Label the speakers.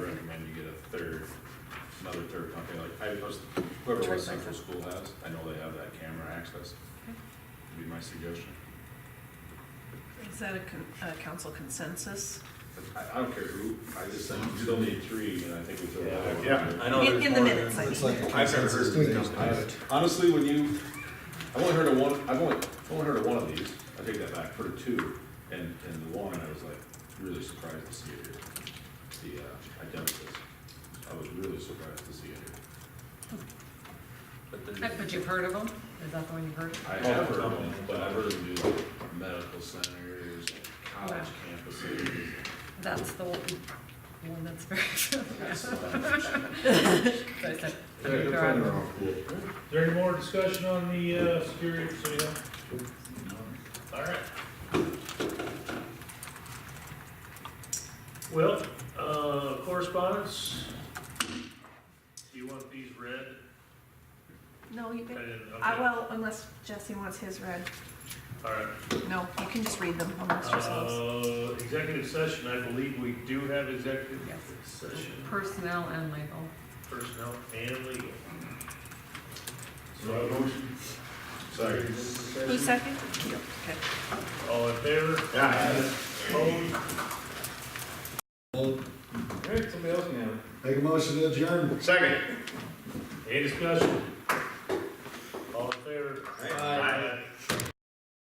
Speaker 1: another third company, like, I was, whoever West Central School has, I know they have that camera access, would be my suggestion.
Speaker 2: Is that a con- a council consensus?
Speaker 1: But I, I don't care who, I just, said you still need three, and I think we throw
Speaker 3: Yeah.
Speaker 1: that one.
Speaker 3: I know
Speaker 2: In-
Speaker 3: there's
Speaker 2: in the
Speaker 3: more
Speaker 2: minutes,
Speaker 3: than-
Speaker 2: I
Speaker 4: It's like a
Speaker 1: I've never heard
Speaker 4: consensus
Speaker 1: of
Speaker 4: thing.
Speaker 1: these Honestly, when you, I've only heard of one, I've only, I've only heard of one of these, I take that back, heard of two, and, and the one, I was like, really surprised to see it here. The, uh, identicals, I was really surprised to see it here.
Speaker 3: But
Speaker 5: Uh,
Speaker 3: the-
Speaker 5: But you've heard of them? Is that the one you've heard?
Speaker 1: I
Speaker 3: Oh,
Speaker 1: have heard of
Speaker 3: okay.
Speaker 1: them, but I've heard them do like medical centers, college campuses.
Speaker 5: That's the one that's very. But it's a-
Speaker 6: Is there any more discussion on the, uh, security of city hall? All right. Well, uh, correspondence, do you want these read?
Speaker 2: No, you
Speaker 6: I
Speaker 2: can,
Speaker 6: didn't,
Speaker 2: I
Speaker 6: okay,
Speaker 2: will, unless Jesse wants his read.
Speaker 6: all right.
Speaker 2: No, you can just read them amongst yourselves.
Speaker 6: Uh, executive session, I believe we do have executive
Speaker 5: Yes.
Speaker 6: session,
Speaker 5: Uh, Personnel and legal.
Speaker 6: personnel and legal. So, motion,
Speaker 1: Sorry.
Speaker 2: Who second?
Speaker 6: all in favor? Opposed?
Speaker 3: Somebody else can have it.
Speaker 4: Make a motion to adjourn.
Speaker 6: Second. Any discussion?